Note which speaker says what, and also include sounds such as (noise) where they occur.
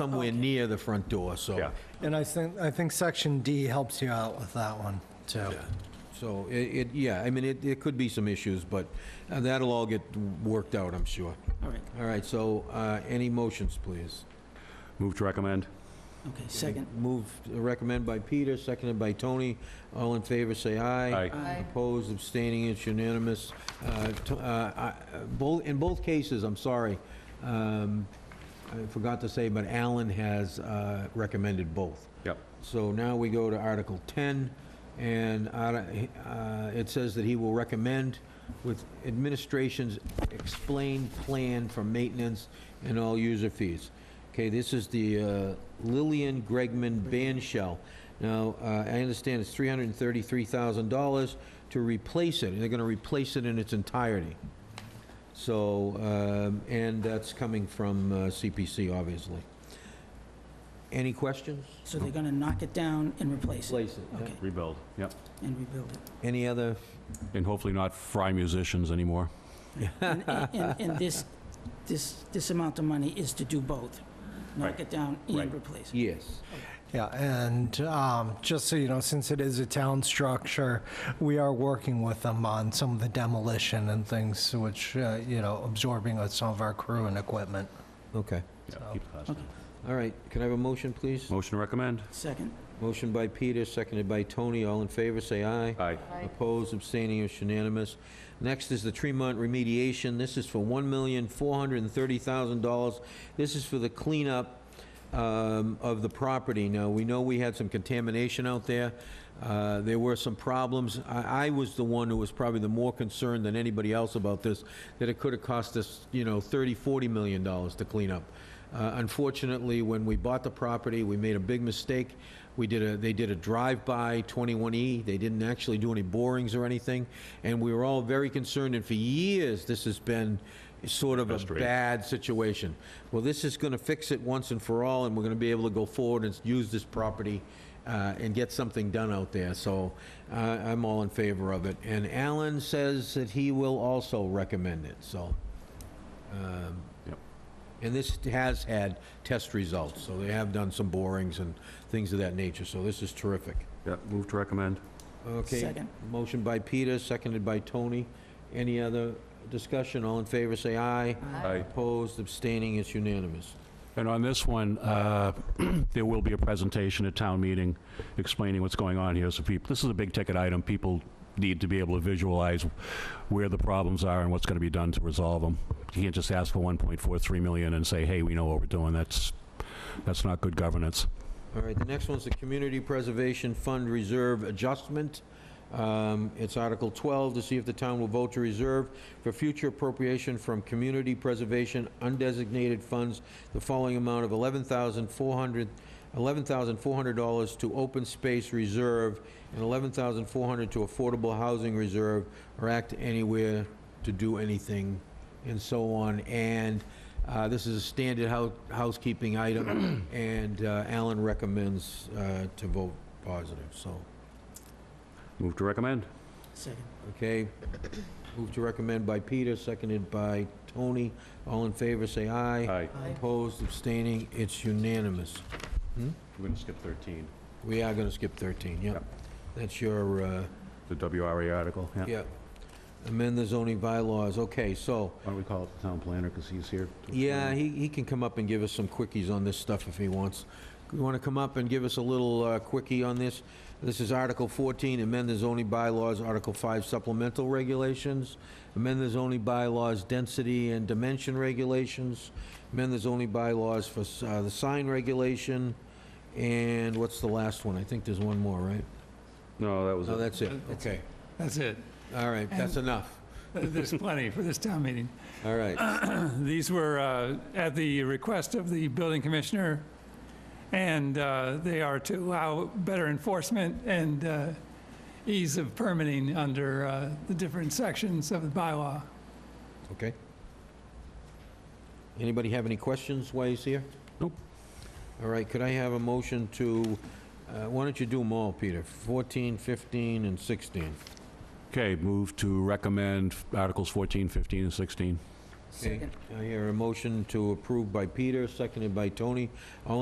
Speaker 1: somewhere near the front door, so.
Speaker 2: Yeah.
Speaker 3: And I think, I think section D helps you out with that one, too.
Speaker 1: So it, it, yeah, I mean, it, it could be some issues, but uh, that'll all get worked out, I'm sure.
Speaker 4: All right,
Speaker 1: All right, so, uh, any motions, please?
Speaker 2: Move to recommend.
Speaker 4: okay, second.
Speaker 1: Move, recommend by Peter, seconded by Tony. All in favor, say aye.
Speaker 2: Aye.
Speaker 4: Aye.
Speaker 1: Opposed, abstaining, it's unanimous. Uh, to- uh, I- uh, both- In both cases, I'm sorry, um, I forgot to say, but Alan has uh, recommended both.
Speaker 2: Yep.
Speaker 1: So now we go to Article 10, and arti- uh, it says that he will recommend with administration's explained plan for maintenance and all user fees. Okay, this is the uh, Lillian Gregman ban shell. Now, uh, I understand it's $333,000 to replace it, and they're going to replace it in its entirety. So, um, and that's coming from uh, CPC, obviously. Any questions?
Speaker 4: So they're gonna knock it down and replace it
Speaker 1: Place it. yeah.
Speaker 4: Okay.
Speaker 2: Rebuild. Yep.
Speaker 4: and rebuild it.
Speaker 1: Any other,
Speaker 2: And hopefully not fry musicians anymore.
Speaker 4: And, and,
Speaker 2: (laughs)
Speaker 4: and this, this, this amount of money is to do both, knock
Speaker 2: Right.
Speaker 4: it down
Speaker 2: Right.
Speaker 4: and replace it.
Speaker 1: yes.
Speaker 3: Yeah, and um, just so you know, since it is a town structure, we are working with them on some of the demolition and things, which, uh, you know, absorbing of some of our crew and equipment.
Speaker 1: Okay.
Speaker 2: Yeah, keep it classy.
Speaker 4: Okay,
Speaker 1: All right, can I have a motion, please?
Speaker 2: Motion to recommend.
Speaker 4: second,
Speaker 1: Motion by Peter, seconded by Tony. All in favor, say aye.
Speaker 2: Aye.
Speaker 1: Opposed, abstaining, it's unanimous. Next is the Tremont remediation. This is for $1,430,000. This is for the cleanup um, of the property. Now, we know we had some contamination out there. Uh, There were some problems. I I was the one who was probably the more concerned than anybody else about this, that it could have cost us, you know, 30, 40 million dollars to clean up. Uh, Unfortunately, when we bought the property, we made a big mistake. We did a, they did a drive-by 21E. They didn't actually do any borings or anything, and we were all very concerned, and for years, this has been sort of a
Speaker 2: Frustrating.
Speaker 1: bad situation. Well, this is going to fix it once and for all, and we're going to be able to go forward and use this property uh, and get something done out there, so uh, I'm all in favor of it. And Alan says that he will also recommend it, so. um,
Speaker 2: Yep.
Speaker 1: and this has had test results, so they have done some borings and things of that nature, so this is terrific.
Speaker 2: Yep, move to recommend.
Speaker 1: Okay.
Speaker 4: Second.
Speaker 1: Motion by Peter, seconded by Tony. Any other discussion? All in favor, say aye.
Speaker 2: Aye.
Speaker 1: Opposed, abstaining, it's unanimous.
Speaker 2: And on this one, uh, (clears throat) there will be a presentation at town meeting explaining what's going on here. So people, this is a big-ticket item. People need to be able to visualize where the problems are and what's going to be done to resolve them. You can't just ask for 1.43 million and say, hey, we know what we're doing. That's, that's not good governance.
Speaker 1: All right, the next one's the Community Preservation Fund Reserve Adjustment. Um, It's Article 12, to see if the town will vote to reserve for future appropriation from Community Preservation Undesignated Funds the following amount of $11,400 $11,400 to Open Space Reserve and $11,400 to Affordable Housing Reserve, or act anywhere to do anything, and so on. And uh, This is a standard hou- housekeeping item, (clears throat) and uh, Alan recommends uh, to vote positive, so,
Speaker 2: Move to recommend.
Speaker 4: second.
Speaker 1: okay? Move to recommend by Peter, seconded by Tony. All in favor, say aye.
Speaker 2: Aye.
Speaker 4: Aye.
Speaker 1: Opposed, abstaining, it's unanimous.
Speaker 2: We're going to skip 13,
Speaker 1: We are going to skip 13, yep.
Speaker 2: Yep.
Speaker 1: That's your, uh,
Speaker 2: the WRA article. Yeah.
Speaker 1: yep. Amend the zoning bylaws, okay, so,
Speaker 2: Why don't we call it the town planner because he's here?
Speaker 1: yeah, he he can come up and give us some quickies on this stuff if he wants. You want to come up and give us a little uh, quickie on this? This is Article 14, amend the zoning bylaws, Article 5 supplemental regulations, amend the zoning bylaws, density and dimension regulations, amend the zoning bylaws for uh, the sign regulation, and what's the last one? I think there's one more, right?
Speaker 2: No, that was
Speaker 1: No, that's it,
Speaker 5: That's
Speaker 1: okay.
Speaker 5: That's it. Uh,
Speaker 1: All right, that's enough.
Speaker 5: There's plenty for this town meeting.
Speaker 1: All right.
Speaker 5: These were uh, at the request of the building commissioner, and uh, they are to allow better enforcement and uh, ease of permitting under uh, the different sections of the bylaw.
Speaker 1: Okay. Anybody have any questions while he's here?
Speaker 2: Nope.
Speaker 1: All right, could I have a motion to, uh, why don't you do them all, Peter? 14, 15, and 16.
Speaker 2: Okay, move to recommend Articles 14, 15, and 16.
Speaker 1: Okay.
Speaker 4: Second.
Speaker 1: I hear a motion to approve by Peter, seconded by Tony. All